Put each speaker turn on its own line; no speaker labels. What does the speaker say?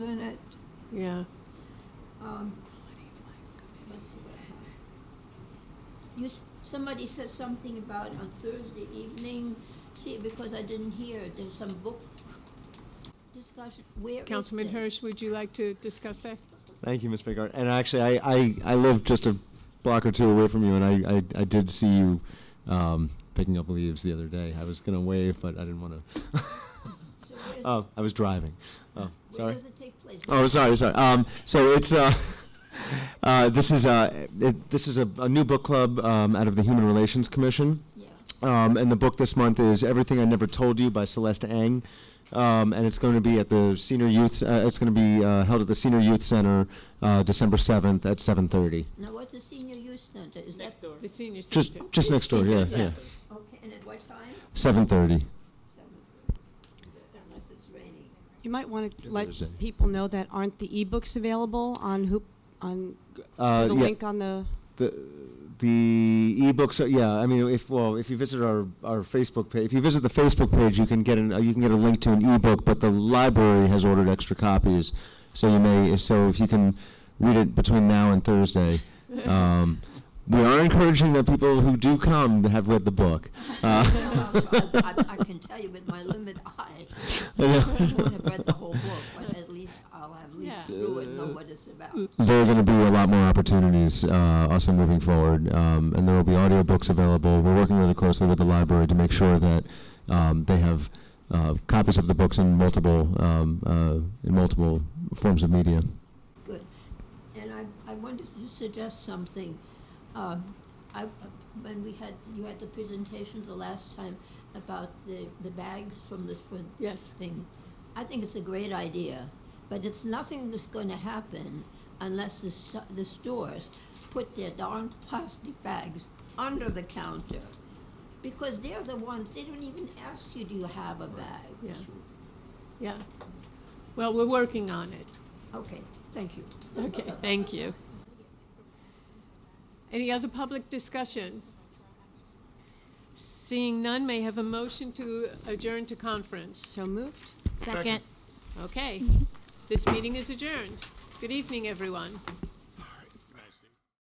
yeah.
Um, You, s- somebody said something about on Thursday evening, see, because I didn't hear, it, there's some book discussion, where is
Councilman
this?
Hirsch, would you like to discuss that?
Thank you, Ms. Bigart. And actually, I, I, I live just a block or two away from you, and I, I, I did see you um, picking up leaves the other day. I was going to wave, but I didn't want to.
So where is-
oh, I was driving. Oh,
Where
sorry.
does it take place?
Oh, sorry, sorry. Um, so it's uh, uh, this is uh, it, this is a, a new book club um, out of the Human Relations Commission.
Yeah,
Um, and the book this month is Everything I Never Told You by Celeste Ang. Um, and it's going to be at the senior youth. Uh, it's going to be uh, held at the senior youth center, uh, December seventh at seven thirty.
now what's the senior youth center, is that?
Next door.
The senior
Just,
center.
just next door. Yeah, yeah.
Okay, and at what time?
Seven thirty.
Seven thirty. Unless it's raining.
You might want to let
there's any.
people know that aren't the ebooks available on Hoop, on
Uh,
through the
yeah,
link on the,
The the ebooks. Are, yeah, I mean, if well, if you visit our, our Facebook page, if you visit the Facebook page, you can get an uh, you can get a link to an ebook. But the library has ordered extra copies, so you may. So if you can read it between now and Thursday. Um, we are encouraging that people who do come have read the book. Uh,
I, I- I can tell you with my limit eye, I won't have read the whole book, but at least I'll have
Yeah.
lived through it and know what it's about.
there are going to be a lot more opportunities uh, also moving forward, um, and there will be audiobooks available. We're working really closely with the library to make sure that um, they have uh, copies of the books in multiple um, uh, in multiple forms of media.
Good. And I, I wanted to suggest something. Um, I, when we had, you had the presentation the last time about the, the bags from the, for
Yes,
thing. I think it's a great idea, but it's nothing that's going to happen unless the, st- the stores put their darn plastic bags under the counter. Because they're the ones, they don't even ask you, do you have a bag?
yeah. Yeah. Well, we're working on it.
Okay, thank you.
Okay, thank you. Any other public discussion? Seeing none, may I have a motion to adjourn to conference.
so moved?
Second.
Okay, this meeting is adjourned. Good evening, everyone.